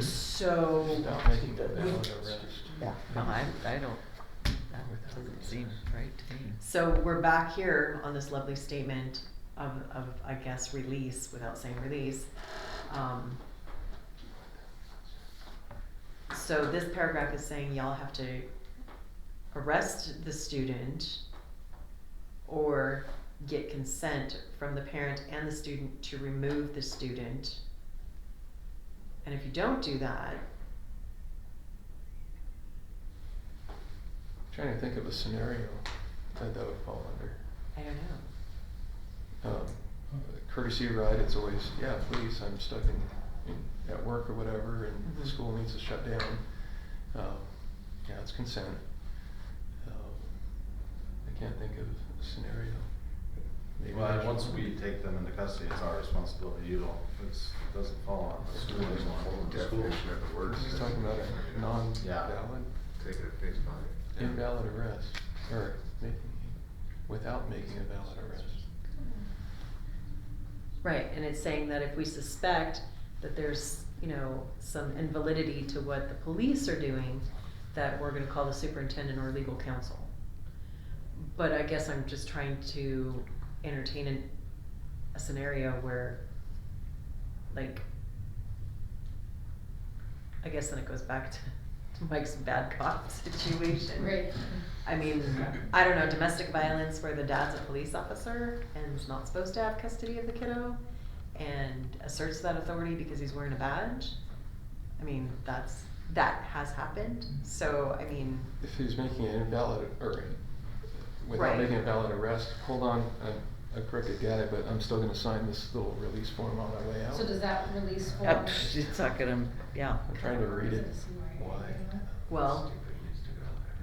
So, Stop making that we- valid arrest. Yeah. No, I, I don't, that doesn't seem right to me. so we're back here on this lovely statement of, of, I guess, release, without saying release. Um, So this paragraph is saying y'all have to arrest the student or get consent from the parent and the student to remove the student. And if you don't do that, Trying to think of a scenario that that would fall under. I don't know. Um, courtesy ride, it's always, yeah, please, I'm stuck in, in, at work or whatever, and Mhm. the school needs to shut down. Um, yeah, it's consent. Um, I can't think of a scenario. Maybe Well, there's once one. we take them into custody, it's our responsibility, you don't, it's, doesn't fall on the school School is anymore. a full definition of the word. He's talking about a non-valid, Take it at face value. invalid arrest, or making, without making a valid arrest. Right, and it's saying that if we suspect that there's, you know, some invalidity to what the police are doing, that we're gonna call the superintendent or legal counsel. But I guess I'm just trying to entertain an, a scenario where, like, I guess then it goes back to, to Mike's bad cop situation. Right. I mean, I don't know, domestic violence where the dad's a police officer and is not supposed to have custody of the kiddo and asserts that authority because he's wearing a badge. I mean, that's, that has happened. So, I mean, If he's making an invalid, or without Right. making a valid arrest, hold on, I'm a crooked guy, but I'm still gonna sign this little release form on my way out. So does that release form? Uh, psh, It's not gonna, yeah. I'm trying to read it. Why? well,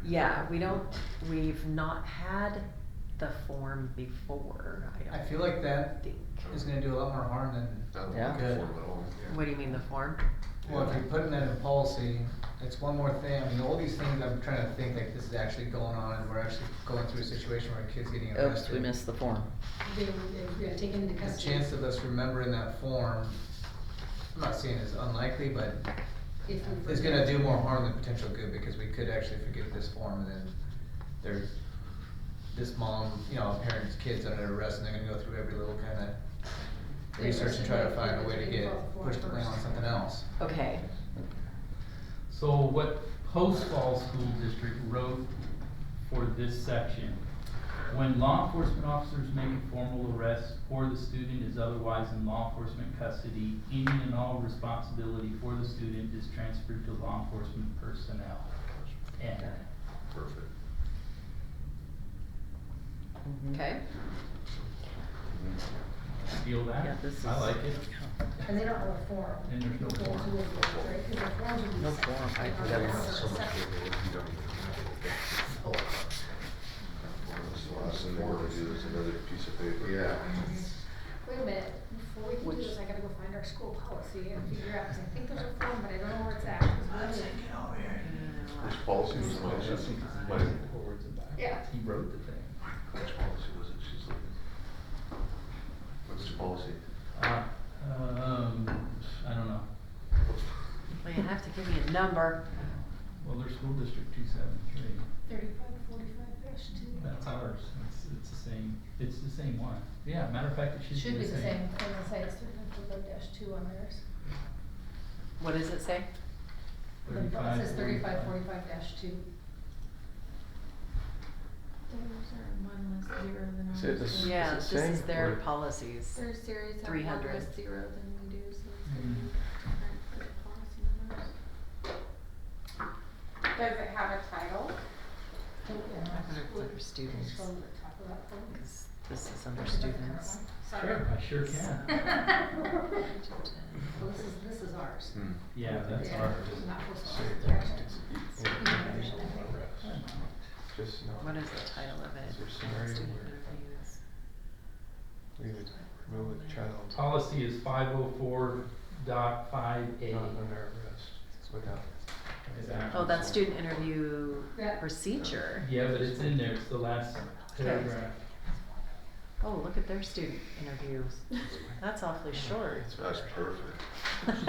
yeah, we don't, we've not had the form before, I I don't feel like that think. is gonna do a lot more harm than, Not Yeah. looking for it at all, yeah. What do you mean, the form? well, if you're putting that in policy, it's one more thing, I mean, all these things, I'm trying to think like this is actually going on and we're actually going through a situation where a kid's getting arrested. Oops, we missed the form. They, they got taken into The custody. chance of us remembering that form, I'm not saying it's unlikely, but If we. it's gonna do more harm than potential good because we could actually forget this form and then there, this mom, you know, parent's kid's under arrest and they're gonna go through every little kinda They're research and try to arrested, find a they way to have to get, involve form push the blame on first. something else. Okay, So what Post Falls School District wrote for this section, when law enforcement officers make a formal arrest or the student is otherwise in law enforcement custody, any and all responsibility for the student is transferred to law enforcement personnel. End. Perfect. Mhm. okay. Feel that? Yeah, this is. I like it. And they don't have a form. And there's no They have to go form. through it, right? 'Cause the forms would be No separate. form, I- They that are was separate So much sections. paperwork, you don't even have it. That's a lot. That's the last thing they wanna do is another piece of paper. Yeah. Wait a minute, before we can do this, I gotta go find our school policy and figure out, 'cause I think there's a form, but I don't know where it's at. 'cause we haven't- Which policy was mine? That's mine. Yeah. He wrote the thing. Which policy was it she's looking? What's the policy? Uh, um, I don't know. Well, you have to give me a number. Well, there's school district two seven three. Thirty-five, forty-five dash two. That's ours. It's, it's the same, it's the same one. Yeah, matter of fact, it Should be the same, I'm gonna say it's thirty-five, forty-five dash two on theirs. What does it say? The bu- It says thirty-five, 35. forty-five dash two. Theirs are one less zero than ours. Is it the s- so- Yeah, it this same is their or- policies. Their series have 300. one less zero than we do, so it's gonna Mm. be different for the policy numbers. Does it have a title? I wonder if it's under students, Scroll to the top of that form. 'cause this is under students. Sure, I sure can. Well, this is, this is ours. Hmm. Yeah, that's Yeah, ours. Not postal. Say Yeah. that it's invalid arrest, just not. What is the arrest. title of it? Is there a scenario Student where interviews. we would remove a child Policy is five oh four dot five A. not under arrest without? Exactly. Oh, that's student interview Yeah. procedure. Yeah, but it's in there, it's the last paragraph. Oh, look at their student interviews. That's awfully short. That's perfect.